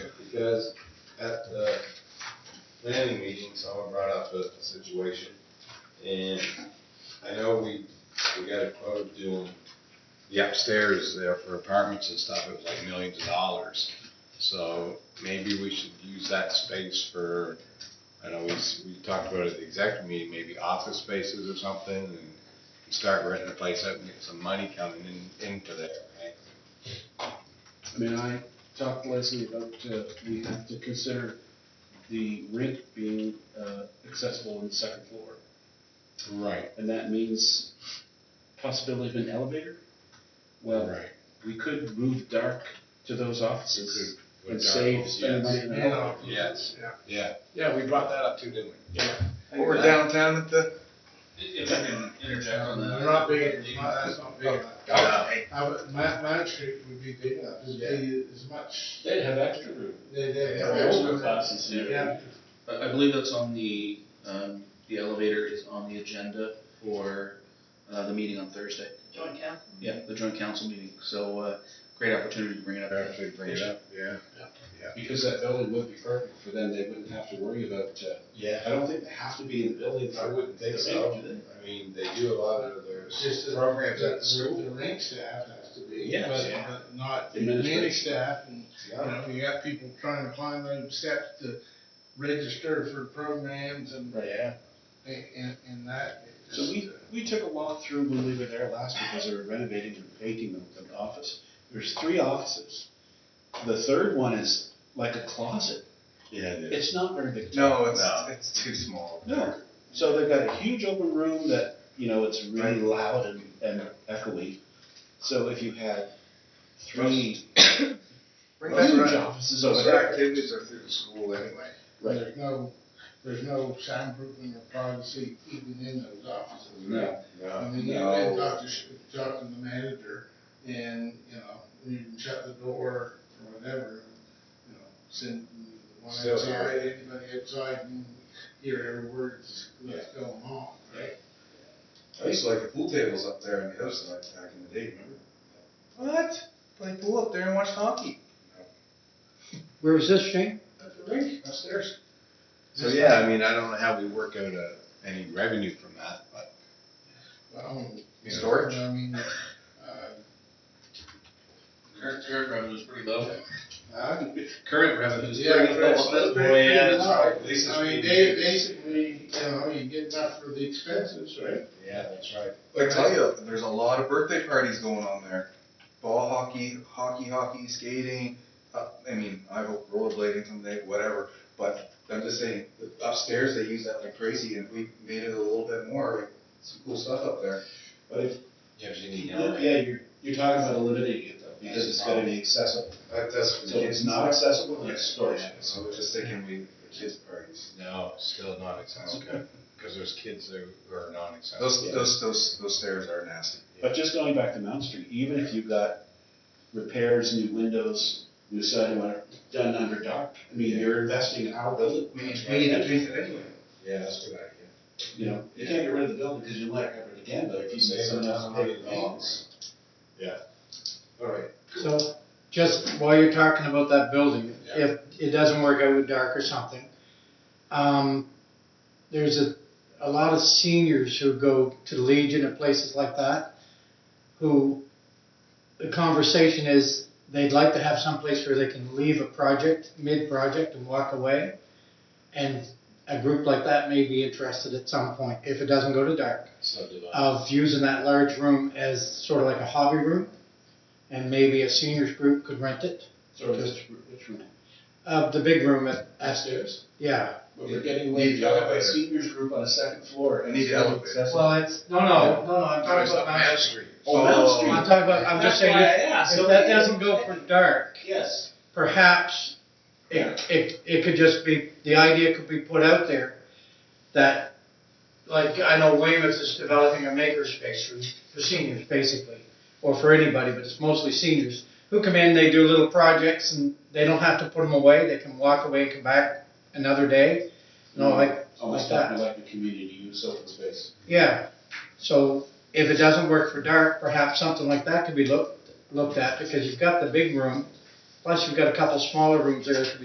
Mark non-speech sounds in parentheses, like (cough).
because at the planning meeting, someone brought up a situation. And I know we, we got a quote of doing the upstairs there for apartments and stuff, it was like millions of dollars. So maybe we should use that space for, I know we, s- we talked about it at the executive meeting, maybe office spaces or something and start renting the place out and get some money coming in, into there, right? I mean, I talked to Leslie about, uh, we have to consider the rink being, uh, accessible on the second floor. Right. And that means possibility of an elevator? Well, Right. we could move dark to those offices and save, spend money Yes, on that. yes, Yeah. yeah. Yeah, we brought that up too, didn't we? Over downtown at the. If I can interject on that. They're not big, enough. that's not big enough. Okay. I would, my, my street would be big enough, it'd be as much, They'd have extra room. they, they for have older extra. classes Yeah, I, I believe that's on the, um, the elevator is on the agenda for, uh, the meeting on Thursday. Joint council? Yeah, the joint council meeting, so, uh, great opportunity to bring it up. Actually, bring it up, yeah. Because that building would be perfect for them, they wouldn't have to worry about, uh, I Yeah, don't think they have to be in the building I for. wouldn't think so. I mean, they do a lot of their it's just the, programs at the the, school. the rink staff has to be, Yes. but, Yeah. but not the Administration. many staff, and, you Yeah. know, you got people trying to climb those steps to register for programs and, Yeah. and, and that. it's So we, just, uh, we took a walk through when we were there last because they were renovating and painting the, the office. There's three offices. The third one is like a closet. Yeah, it is. It's not very big. No, it's, No. it's too small. No. So they've got a huge open room that, you know, it's really loud and, and echoey. So if you had three (coughs) Bring that huge around. offices over Those their there. activities are through the school anyway. Right. There's no, there's no soundproofing or privacy even in those offices. No. Uh, I Yeah. mean, you No. can talk to, sh- talk to the manager and, you know, you can shut the door or whatever, you know, send one Still outside, anybody outside and hear every word that's that's going on. right? I used to like the pool tables up there on the other side back in the day, remember? What? Play pool up there and watch hockey. Where was this, Shane? At the rink upstairs. So, yeah, I mean, I don't know how we work out uh, any revenue from that, but, Well, you know, Storage? I mean, uh, Current, current revenue is pretty low. I, Current revenue is Yeah, pretty that's- low. Yeah, that's right. Lisa's I mean, pretty they good. basically, you know, you get enough for the expenses, right? yeah, that's right. I tell you, there's a lot of birthday parties going on there. Ball hockey, hockey, hockey, skating. Uh, I mean, I hope rollerblading someday, whatever. But I'm just saying, upstairs they use that like crazy, and if we made it a little bit more, like, some cool stuff up there. But if, Yeah, you need yeah, to- you're, you're talking about eliminating it though, because it's gotta be accessible. That, that's for the So it's kids. not accessible, Yeah, it's storage. So I was just thinking, we the kids parties. No, still not accessible, because there's kids who are not accessible. Those those those those stairs are nasty. But just going back to Mount Street, even if you've got repairs, new windows, new siding, whatever, done under dark, I mean, you're investing in our building. We need we need to paint it anyway. Yeah, that's a good idea. You know, you can't get rid of the building because you might have it again, but if you say someone else paid the bills. All right. So, just while you're talking about that building, if it doesn't work out with dark or something, um, there's a, a lot of seniors who go to the Legion and places like that, who, the conversation is, they'd like to have someplace where they can leave a project, mid-project and walk away. And a group like that may be interested at some point, if it doesn't go to dark. So do I. of using that large room as sort of like a hobby room, and maybe a seniors group could rent it. So which, which room? Uh, the big room at, at, Upstairs. yeah. But we're getting away, Need you by elevator. seniors group on a second floor. and Need it's not elevator. accessible. Well, it's, no, no, no, no, I'm talking about, Mount- Street. Oh, Mount Street. I'm talking about, I'm just saying, if if that doesn't go for dark, Yes. perhaps Yeah. it, it, it could just be, the idea could be put out there that, like, I know Weymouth is developing a makerspace for, for seniors, basically, or for anybody, but it's mostly seniors, who come in, they do little projects, and they don't have to put them away, they can walk away and come back another day, you know, like, Almost like that. talking like a community use open space. yeah. So if it doesn't work for dark, perhaps something like that could be looked, looked at, because you've got the big room, plus you've got a couple smaller rooms there that could be